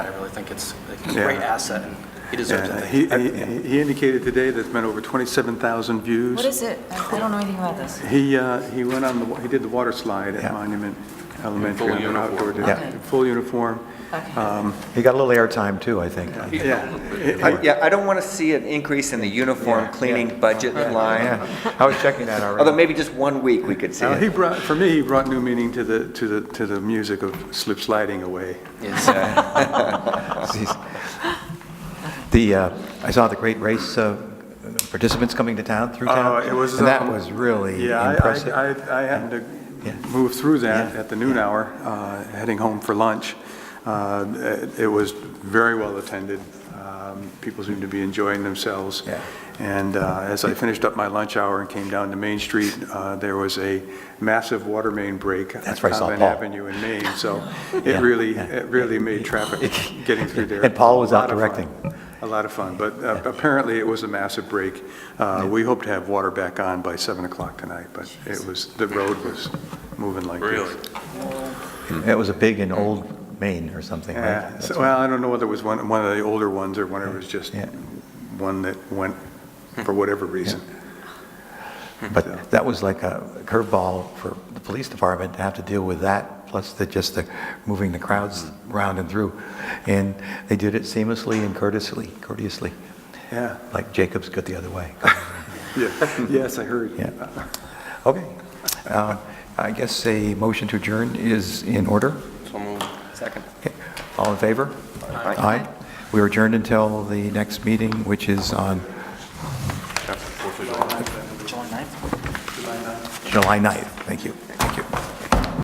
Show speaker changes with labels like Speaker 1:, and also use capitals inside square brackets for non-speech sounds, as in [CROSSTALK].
Speaker 1: I really think it's a
Speaker 2: Yeah.
Speaker 1: great asset, and he deserves
Speaker 2: Yeah,
Speaker 1: it.
Speaker 2: He he- he indicated today that it's been over 27,000 views.
Speaker 3: What is it? I I don't know anything about this.
Speaker 2: He, uh, he went on the, wa- he did the water slide at
Speaker 4: Yeah.
Speaker 2: Monument Elementary.
Speaker 5: full
Speaker 2: on an outdoor
Speaker 5: uniform.
Speaker 2: day.
Speaker 3: Yeah.
Speaker 2: In Full uniform. Um,
Speaker 3: Okay.
Speaker 4: He got a little airtime too, I think.
Speaker 2: Yeah.
Speaker 6: I- Yeah, I don't want to see an increase in the uniform cleaning budget line,
Speaker 4: Yeah, I was checking that already.
Speaker 6: although maybe just one week we could see
Speaker 2: Uh,
Speaker 6: it.
Speaker 2: He brought, for me, he brought new meaning to the, to the, to the music of Slip Sliding Away.
Speaker 4: Jeez. The, uh, I saw the great race uh, participants coming to town, through town.
Speaker 2: Uh, it was,
Speaker 4: And that
Speaker 2: um,
Speaker 4: was really
Speaker 2: Yeah, I-
Speaker 4: impressive.
Speaker 2: I, I, I happened
Speaker 4: Yeah.
Speaker 2: to move through that
Speaker 4: Yeah.
Speaker 2: at the noon hour, uh, heading home for lunch. Uh, It it was very well attended. Um, People seemed to be enjoying themselves.
Speaker 4: Yeah.
Speaker 2: And uh, as I finished up my lunch hour and came down to Main Street, uh, there was a massive water main break. on
Speaker 4: That's where I saw
Speaker 2: Convent
Speaker 4: Paul.
Speaker 2: Avenue in Maine,
Speaker 4: [LAUGHS]
Speaker 2: so
Speaker 4: Yeah,
Speaker 2: it really,
Speaker 4: yeah.
Speaker 2: it really made traffic [LAUGHS] getting through there.
Speaker 4: And Paul was
Speaker 2: a
Speaker 4: out
Speaker 2: lot of fun.
Speaker 4: directing.
Speaker 2: A lot of fun, but uh, apparently it was a massive break. Uh, We hope to have water back on by 7 o'clock tonight, but it was, the road was moving like this.
Speaker 5: Really?
Speaker 4: It was a big and old Maine or something, right?
Speaker 2: Yeah,
Speaker 4: That's
Speaker 2: Uh, so-
Speaker 4: right.
Speaker 2: well, I don't know whether it was one, one of the older ones or whether it was just
Speaker 4: Yeah.
Speaker 2: one that went for whatever reason.
Speaker 4: But that was like a curveball for the police department to have to deal with that, plus the, just the moving the crowds round and through. And they did it seamlessly and courteously, courteously,
Speaker 2: Yeah,
Speaker 4: like Jacobs got the other way.
Speaker 2: yeah, [LAUGHS] yes, I heard.
Speaker 4: Yeah. Okay. Uh, I guess a motion to adjourn is in order.
Speaker 5: So moved.
Speaker 6: Second.
Speaker 4: Okay. All in favor? Aye. We are adjourned until the next meeting, which is on
Speaker 5: After the Fourth of July.
Speaker 1: July 9th?
Speaker 4: July 9th. Thank you.